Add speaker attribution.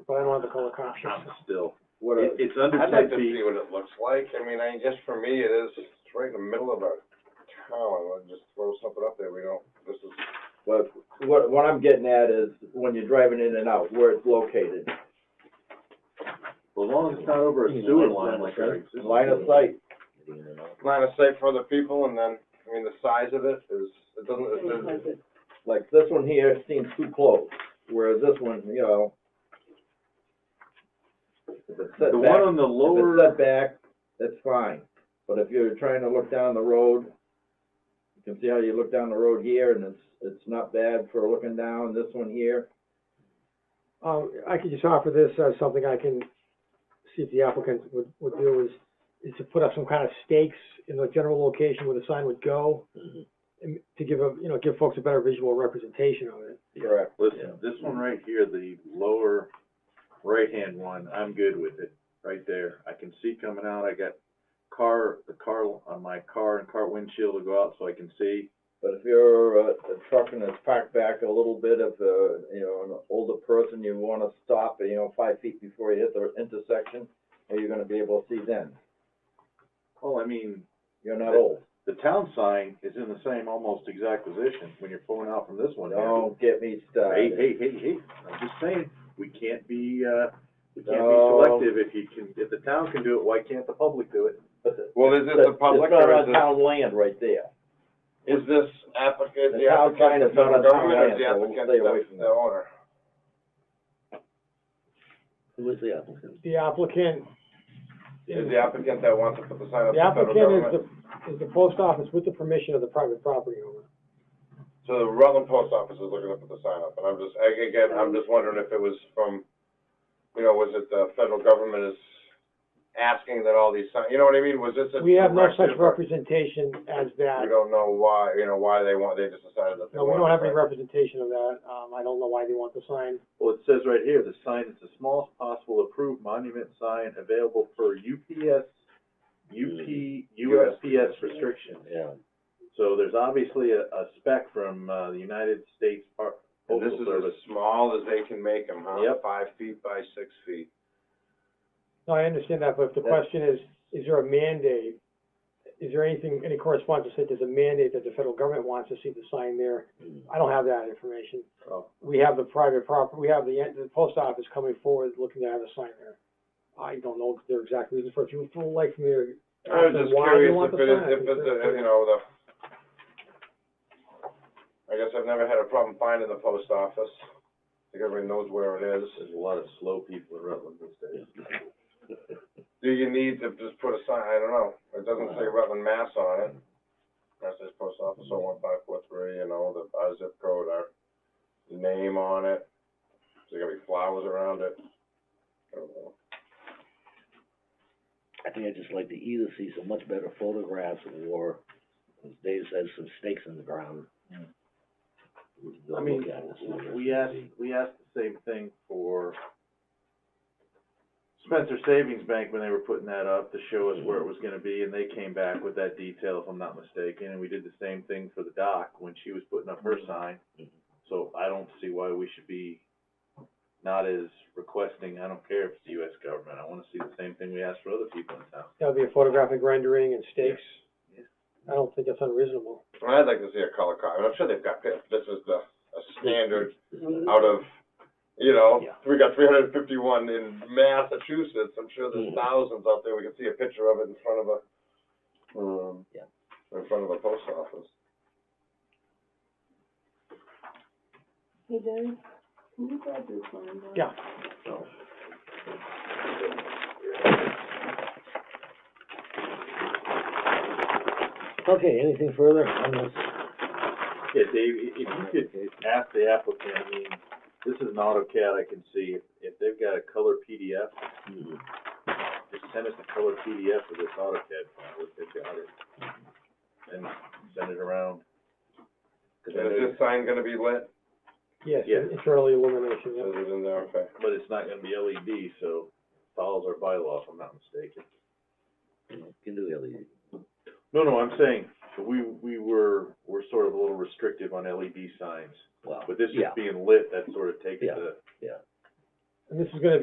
Speaker 1: the color
Speaker 2: I'm
Speaker 1: conscious.
Speaker 2: still,
Speaker 3: What
Speaker 2: it,
Speaker 3: a,
Speaker 2: it's under
Speaker 4: I'd
Speaker 2: ten
Speaker 4: like to
Speaker 2: feet,
Speaker 4: see what it looks like, I mean, I, just for me, it is, it's right in the middle of a town, I'll just throw something up there, we don't, this is,
Speaker 3: what, what, what I'm getting at is when you're driving in and out, where it's located.
Speaker 2: as long as it's not over a sewer line like our existing.
Speaker 3: Line of sight,
Speaker 4: line of sight for other people, and then, I mean, the size of it is, it doesn't, it doesn't.
Speaker 3: like this one here seems too close, whereas this one, you know. if it's set
Speaker 2: The
Speaker 3: back-
Speaker 2: one on the
Speaker 3: If it's
Speaker 2: lower,
Speaker 3: set back, that's fine, but if you're trying to look down the road, you can see how you look down the road here, and it's, it's not bad for looking down, this one here.
Speaker 1: Um, I could just offer this as something I can see if the applicant would, would do is, is to put up some kind of stakes in the general location where the sign would go. And to give a, you know, give folks a better visual representation of it.
Speaker 3: Correct.
Speaker 2: listen, this one right here, the lower right-hand one, I'm good with it, right there. I can see coming out, I got car, the car, on my car and car windshield to go out so I can see.
Speaker 3: But if you're a, a truck and it's parked back a little bit, if, uh, you know, an older person, you wanna stop, you know, five feet before you hit the intersection, are you gonna be able to see then?
Speaker 2: Well, I mean,
Speaker 3: You're not old,
Speaker 2: the town sign is in the same almost exact position when you're pulling out from this one. here.
Speaker 3: don't get me
Speaker 2: Hey,
Speaker 3: started.
Speaker 2: hey, hey, hey, I'm just saying, we can't be, uh, we can't be
Speaker 3: No.
Speaker 2: selective. If you can, if the town can do it, why can't the public do it?
Speaker 4: Well, is this the public,
Speaker 3: It's not
Speaker 4: or
Speaker 3: on
Speaker 4: is this,
Speaker 3: town land right there.
Speaker 4: is this applicant,
Speaker 3: The
Speaker 4: the
Speaker 3: town sign
Speaker 4: applicant, the
Speaker 3: is not on town
Speaker 4: federal government, or is
Speaker 3: land,
Speaker 4: the
Speaker 3: so we'll
Speaker 4: applicant,
Speaker 3: stay away
Speaker 4: the,
Speaker 3: from
Speaker 4: the
Speaker 3: that.
Speaker 4: owner?
Speaker 1: The applicant,
Speaker 4: Is the applicant that wants to put the sign up,
Speaker 1: the
Speaker 4: the federal
Speaker 1: applicant is
Speaker 4: government?
Speaker 1: the, is the post office with the permission of the private property owner.
Speaker 4: So the Rutland Post Office is looking up at the sign up, and I'm just, ag- again, I'm just wondering if it was from, you know, was it the federal government is asking that all these signs, you know what I mean, was this a
Speaker 1: We have no such
Speaker 4: directive?
Speaker 1: representation as that.
Speaker 4: We don't know why, you know, why they want, they just decided that they
Speaker 1: No, we
Speaker 4: wanted.
Speaker 1: don't have
Speaker 4: it,
Speaker 1: any
Speaker 4: right?
Speaker 1: representation of that. Um, I don't know why they want the sign.
Speaker 2: Well, it says right here, the sign is the smallest possible approved monument sign available for UPS, UP, USPS restrictions.
Speaker 5: Yeah.
Speaker 2: So there's obviously a, a spec from, uh, the United States Par-
Speaker 4: And this
Speaker 2: Postal
Speaker 4: is as
Speaker 2: Service.
Speaker 4: small as they can make them, huh?
Speaker 2: Yep.
Speaker 4: Five feet by six feet.
Speaker 1: No, I understand that, but if the
Speaker 3: That's-
Speaker 1: question is, is there a mandate? Is there anything, any correspondence that said there's a mandate that the federal government wants to see the sign there? I don't have that information.
Speaker 2: Oh.
Speaker 1: We have the private property, we have the, the post office coming forward looking to have a sign there. I don't know their exact reason for it. If you feel like from your.
Speaker 4: I was just
Speaker 1: why they
Speaker 4: curious
Speaker 1: want
Speaker 4: if
Speaker 1: the
Speaker 4: it is,
Speaker 1: sign,
Speaker 4: if it's, a- if, you know, the, I guess I've never had a problem finding the post office, because everybody knows where it is.
Speaker 2: There's a lot of slow people in Rutland these days.
Speaker 4: Do you need to just put a sign, I don't know, it doesn't say Rutland, Mass on it. Mass says post office, oh one five four three, you know, the, our zip code, our name on it, there's gonna be flowers around it. I don't know.
Speaker 5: I think I'd just like to either see some much better photographs or, as Dave says, some stakes in the ground. We can go
Speaker 2: I mean,
Speaker 5: look at it, see what it
Speaker 2: we
Speaker 5: is.
Speaker 2: asked, we asked the same thing for Spencer Savings Bank when they were putting that up to show us where it was gonna be, and they came back with that detail, if I'm not mistaken, and we did the same thing for the doc when she was putting up her
Speaker 5: Mm-hmm.
Speaker 2: sign. So I don't see why we should be not as requesting, I don't care if it's the US government, I wanna see the same thing we asked for other people in town.
Speaker 1: That would be a photographic rendering and stakes.
Speaker 2: Yeah.
Speaker 1: I don't think that's unreasonable.
Speaker 4: And I'd like to see a color card, and I'm sure they've got, this This is the, a standard out of, you know,
Speaker 5: Yeah.
Speaker 4: we got three hundred and fifty-one in Massachusetts, I'm sure
Speaker 5: Mm.
Speaker 4: there's thousands out there, we can see a picture of it in front of a, um,
Speaker 5: Yeah.
Speaker 4: in front of a post office.
Speaker 6: Hey, Dave, can you grab this line? down?
Speaker 1: Yeah.
Speaker 5: So, Okay, anything further on this?
Speaker 2: Yeah, Dave, i- if you could ask the applicant, I mean, this is an AutoCAD, I can see, if, if they've got a color PDF,
Speaker 5: Mhm.
Speaker 2: just send us a color PDF of this AutoCAD file, if they've got it, and send it around. 'Cause I
Speaker 4: And is
Speaker 2: know-
Speaker 4: this sign gonna be lit?
Speaker 1: Yes,
Speaker 2: Yeah.
Speaker 1: it's early illumination, yeah.
Speaker 4: Is it in there, okay.
Speaker 2: But it's not gonna be LED, so follows our bylaw, if I'm not mistaken.
Speaker 5: You Can do LED.
Speaker 2: No, no, I'm saying, we, we were, we're sort of a little restrictive on LED signs,
Speaker 5: Well,
Speaker 2: but this
Speaker 5: yeah,
Speaker 2: just being lit, that sort of takes
Speaker 5: Yeah.
Speaker 2: the.
Speaker 5: yeah.
Speaker 1: And this is gonna be